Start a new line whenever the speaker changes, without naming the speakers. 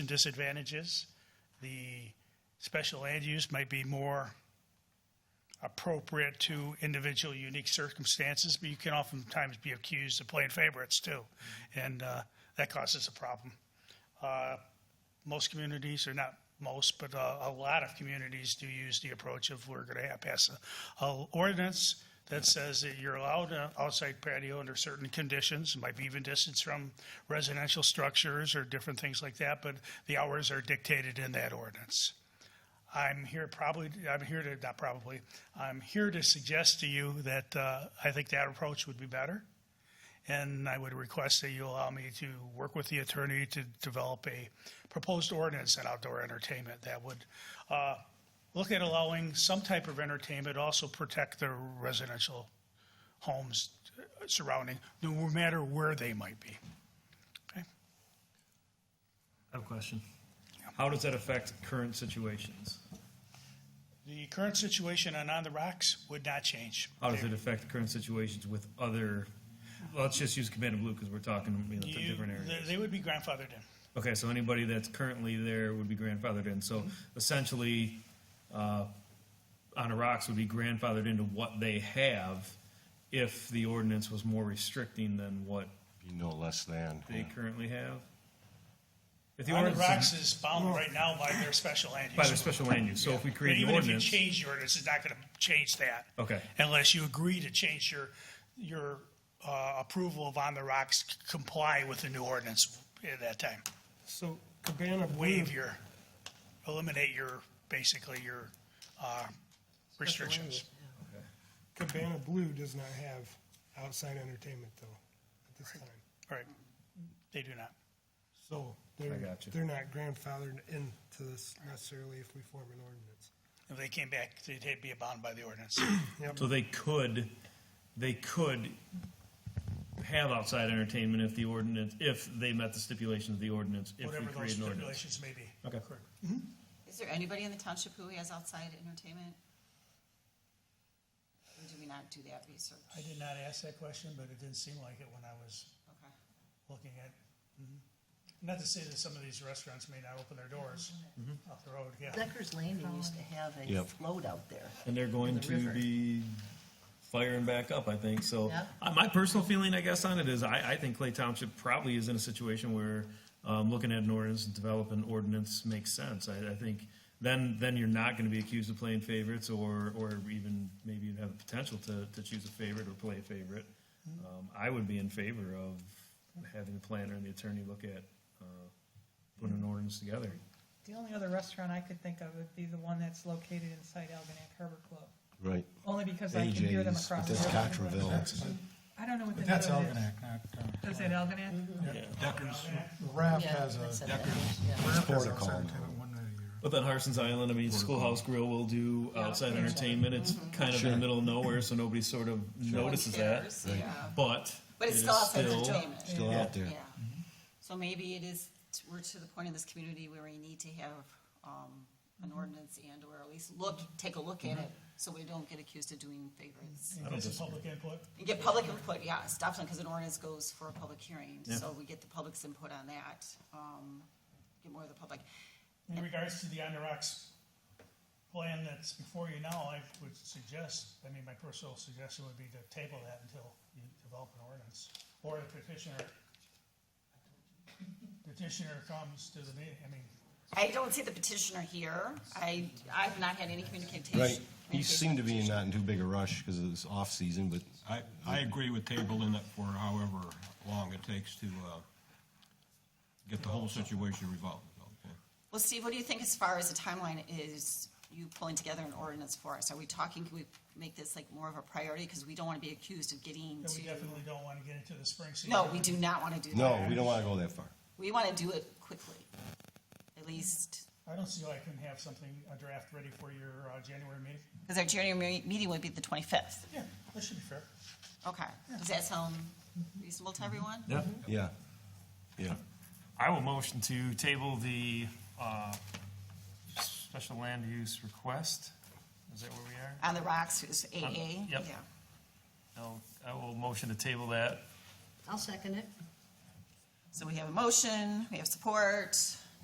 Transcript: and disadvantages. The special land use might be more appropriate to individual unique circumstances, but you can oftentimes be accused of playing favorites too, and uh, that causes a problem. Uh, Most communities, or not most, but uh, a lot of communities do use the approach of we're going to have pass a- a ordinance that says that you're allowed an outside patio under certain conditions, might be even distance from residential structures or different things like that, but the hours are dictated in that ordinance. I'm here probably, I'm here to, not probably, I'm here to suggest to you that uh, I think that approach would be better. And I would request that you allow me to work with the attorney to develop a proposed ordinance on outdoor entertainment that would uh, look at allowing some type of entertainment, also protect the residential homes surrounding, no matter where they might be. Okay?
I have a question. How does that affect current situations?
The current situation on On the Rocks would not change.
How does Oh, it affect current situations with other, well, let's just use Command and Blue because we're talking, you know,
You-
for different areas.
they- They would be grandfathered in.
Okay, so anybody that's currently there would be grandfathered in. So essentially, uh, on the rocks would be grandfathered into what they have if the ordinance was more restricting than what
Be no less than.
they currently have. If the
On the
ordinance Oh.
Rocks is bound right now by their special land use.
by their special land use, so if we
But
create an
Even if you
ordinance,
change the ordinance, it's not going to change that.
Okay.
Unless you agree to change your, your uh, approval of On the Rocks to comply with the new ordinance at that time.
So Cabana Blue,
Waive your, eliminate your, basically your uh, restrictions.
Cabana Blue does not have outside entertainment though, at this time.
Right. They do not.
So
I
they're,
got you.
they're not grandfathered into this necessarily if we form an ordinance.
If they came back, they'd they'd be bound by the ordinance.
so they could, they could have outside entertainment if the ordinance, if they met the stipulations of the ordinance, if we
Whatever those
create an ordinance.
stipulations may be.
Okay.
Is there anybody in the township who has outside entertainment? Or do we not do that research?
I did not ask that question, but it didn't seem like it when I was
Okay.
looking at. mm-hmm. Not to say that some of these restaurants may not open their doors off the road, yeah.
Deckers Landing used to have a
Yep.
float out there.
And they're going
the
to
river.
be firing back up, I think, so.
Yep.
uh, My personal feeling, I guess, on it is I, I think Clay Township probably is in a situation where, um, looking at an ordinance and develop an ordinance makes sense. I, I think then, then you're not gonna be accused of playing favorites or, or even maybe you have the potential to, to choose a favorite or play a favorite.
Mm-hmm.
Um, I would be in favor of having the planner and the attorney look at, uh, putting an ordinance together.
The only other restaurant I could think of would be the one that's located inside Algonac Harbor Club,
Right.
only because I can hear them
AJ's,
across
but
the
that's
river.
Cotterville.
I don't know what the.
That's
name of it is.
Algonac, not, uh,
Is it Algonac?
Deckers. RAF
Yeah,
has a,
that's a
Deckers.
Deckers,
RAF has
Portico
outside
now.
tenant one night a year.
But then Harson's Island, I mean, Schoolhouse Grill will do outside entertainment. It's
Mm-hmm.
kind of in the middle of nowhere, so nobody sort of notices that.
Cares, Yeah,
But
but
it
it's
is
still outside entertainment,
Still out there.
yeah. So maybe it is, we're to the point in this community where we need to have, um, an ordinance and or at least look, take a look at it, so we don't get accused of doing favorites.
Get some public input.
And get public input, yeah, it's definitely, because an ordinance goes for a public hearing, so we get the public's input on that, um, get more of the public.
In regards to the On the Rocks plan that's before you now, I would suggest, I mean, my personal suggestion would be to table that until you develop an ordinance. Or the petitioner, petitioner comes to the meeting, I mean,
I don't see the petitioner here. I, I've not had any communication.
Right. He
communication
seemed to be
with
not in too big a rush because it was off-season, but
I, I agree with tabling it for however long it takes to, uh, get the whole situation resolved. okay?
petitioner. Well, Steve, what do you think as far as the timeline is you pulling together an ordinance for us? Are we talking, can we make this like more of a priority? Because we don't want to be accused of
then
getting
we
to.
definitely don't want to get into the spring season.
No, we do not want to do that.
no, we don't want to go that far.
We want to do it quickly, at least,
I don't see why I couldn't have something, a draft ready for your uh, January meeting.
because our January me- meeting would be the twenty-fifth.
Yeah, that should be fair.
Okay. Does that sound reasonable to everyone?
Yeah.
Yeah. Yeah.
I will motion to table the uh, special land use request. Is that where we are?
On the rocks is AA?
yep.
Yeah.
I'll- I will motion to table that.
I'll second it.
So we have a motion, we have support.